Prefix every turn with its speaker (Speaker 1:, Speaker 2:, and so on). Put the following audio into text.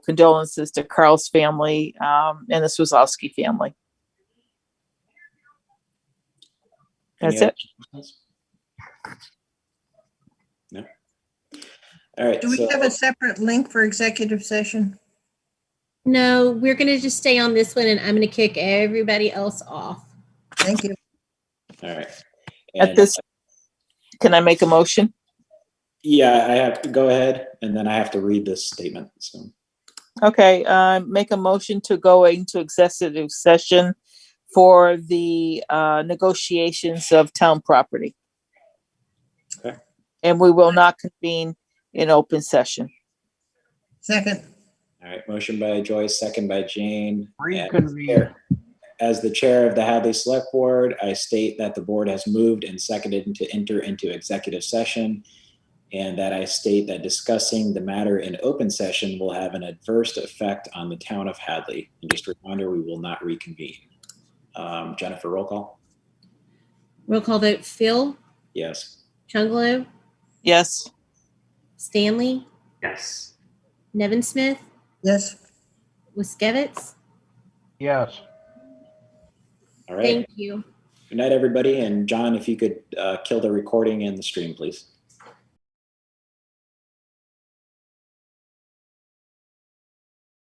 Speaker 1: condolences to Carl's family um, and the Swazowski family.
Speaker 2: Any
Speaker 1: That's it.
Speaker 2: other questions? No. All right.
Speaker 3: Do we
Speaker 2: so-
Speaker 3: have a separate link for executive session?
Speaker 4: No, we're going to just stay on this one and I'm going to kick everybody else off.
Speaker 3: Thank you.
Speaker 2: All right.
Speaker 1: At
Speaker 2: And-
Speaker 1: this, can I make a motion?
Speaker 2: Yeah, I have to go ahead and then I have to read this statement. So,
Speaker 1: Okay, uh, make a motion to go into executive session for the uh, negotiations of town property.
Speaker 2: Okay.
Speaker 1: And we will not convene in open session.
Speaker 3: Second,
Speaker 2: all right, motion by Joyce, second by Jane.
Speaker 5: Reconvene.
Speaker 2: As the chair of the Hadley Select Board, I state that the board has moved and seconded to enter into executive session. And that I state that discussing the matter in open session will have an adverse effect on the town of Hadley. And just a reminder, we will not reconvene. Um, Jennifer, roll call?
Speaker 4: Roll call vote, Phil,
Speaker 2: Yes.
Speaker 4: Chungalo,
Speaker 1: Yes,
Speaker 4: Stanley,
Speaker 5: Yes.
Speaker 4: Nevin Smith,
Speaker 3: yes.
Speaker 4: Wiskevitz.
Speaker 5: Yes.
Speaker 2: All right.
Speaker 4: Thank you.
Speaker 2: Good night, everybody. And John, if you could uh, kill the recording and the stream, please.